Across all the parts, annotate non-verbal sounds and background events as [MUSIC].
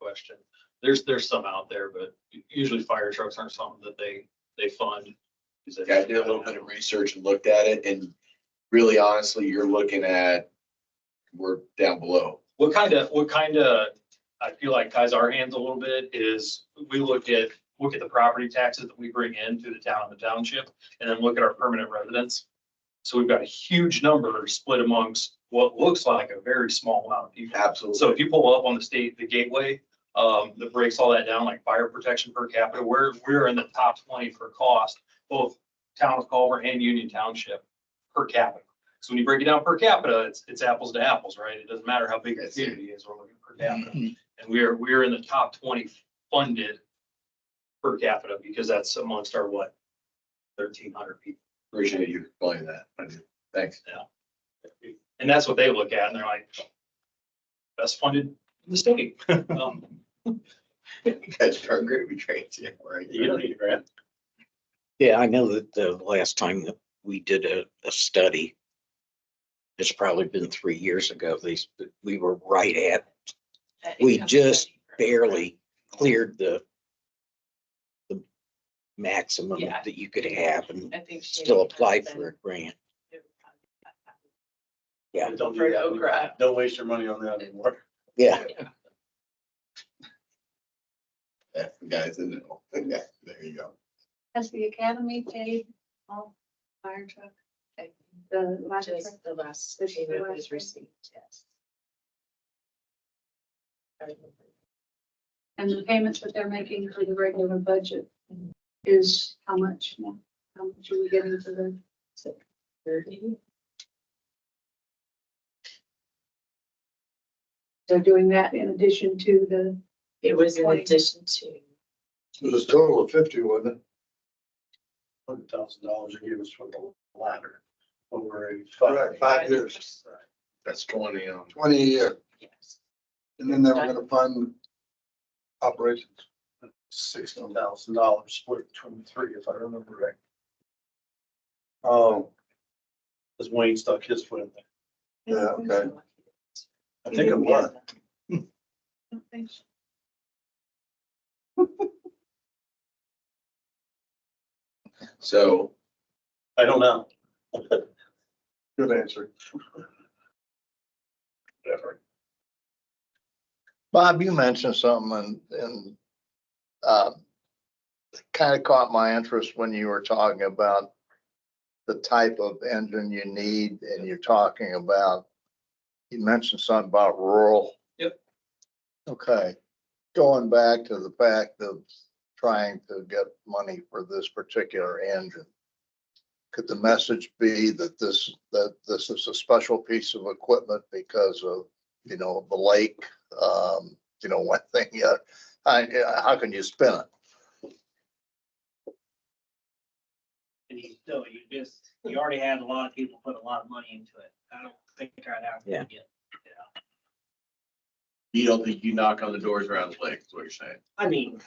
question. There's, there's some out there, but usually fire trucks aren't something that they, they fund. 'cause it's- Yeah, I did a little bit of research and looked at it and really honestly, you're looking at, we're down below. What kind of, what kind of, I feel like ties our hands a little bit is we look at, look at the property taxes that we bring in to the town and the township and then look at our permanent residents. So we've got a huge number split amongst what looks like a very small amount of people. So Absolutely. if you pull up on the state, the gateway, um, that breaks all that down, like fire protection per capita, we're, we're in the top twenty for cost, both town of Culver and Union Township per capita. So when you break it down per capita, it's, it's apples to apples, right? It doesn't matter how big the community is, we're looking per capita. And we are, we are in the top twenty funded per capita because that's amongst our what? Thirteen hundred people. Appreciate you explaining that. I do. Thanks. And that's what they look at and they're like, best funded in the state. Um, That's our great retrain. Yeah, right. You don't need a grant. Yeah, I know that the last time that we did a, a study, it's probably been three years ago, they, s- we were right at, We just barely cleared the the maximum Yeah. that you could have and still apply for a grant. Yeah. Don't do that. Don't waste your money on that anymore. Yeah, That's the guys in it. [LAUGHS] Yeah, There you go. Has the academy paid all fire truck, the last truck? Just the last payment was received, yes. And the payments that they're making for the regular budget is how much? How much are we getting for the? Thirty. They're doing that in addition to the, It was in Twenty. addition to, It was a total of fifty, wasn't it? Hundred thousand dollars they gave us for the ladder over a five. Correct, five years, That's twenty, um, twenty a year, yes. and then they were gonna fund operations. Sixteen thousand dollars split between the three, if I remember right. Oh. Cause Wayne stuck his foot in there. Yeah, okay. I think it was. I don't think so. so I don't know. Good answer. Whatever. Bob, you mentioned something and, and, uh, kind of caught my interest when you were talking about the type of engine you need and you're talking about, you mentioned something about rural. Yep. Okay, going back to the fact of trying to get money for this particular engine. Could the message be that this, that this is a special piece of equipment because of, you know, the lake um, you know, [LAUGHS] one thing, yeah, I, I- how can you spin it? And you still, you just, you already had a lot of people put a lot of money into it. I don't think I'd have Yeah. to get. you don't think you knock on the doors around the lake, is what you're saying. I mean,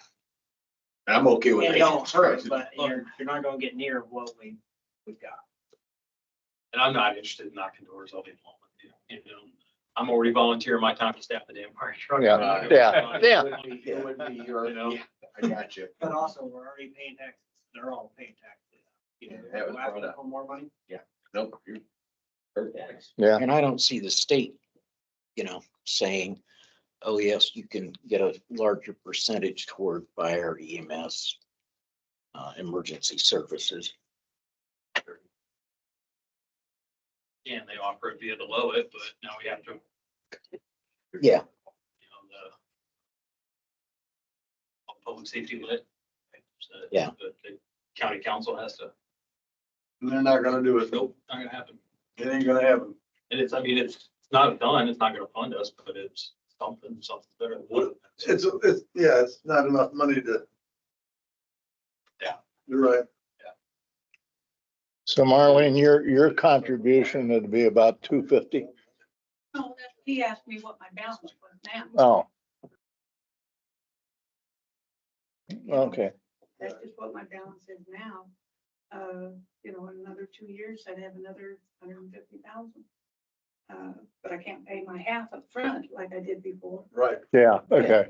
And I'm okay with it that. don't hurt, [LAUGHS] but you're, you're not gonna get near what we, we've got. And I'm not interested in knocking doors all day long. with you, you know? I'm already volunteering my time to staff the damn fire truck. Uh, Yeah, yeah, yeah. It would be your, You know? I got you. But also, we're already paying taxes. They're all paying taxes. You know, That was go after brought up. For more money? Nope. you're- Yeah. and I don't see the state, you know, saying, oh, yes, you can get a larger percentage toward fire EMS, uh, emergency services. And they offer it via the low it, but now we have to, you Yeah, know, the public safety lit. So, Yeah. but The county council has to, And they're not gonna do it. nope, not gonna happen. It ain't gonna happen. And it's, I mean, it's it's not done, it's not gonna fund us, but it's something, something better. than nothing. It's, it's, yeah, it's not enough money to. Yeah. You're right. So Marlene, your, your contribution would be about two fifty? No, that- he asked me what my balance was now. Oh. Oh, Okay, That's just what my balance is now. Uh, you know, in another two years, I'd have another hundred and fifty thousand. Uh, but I can't pay my half up front like I did before. Right. yeah, okay.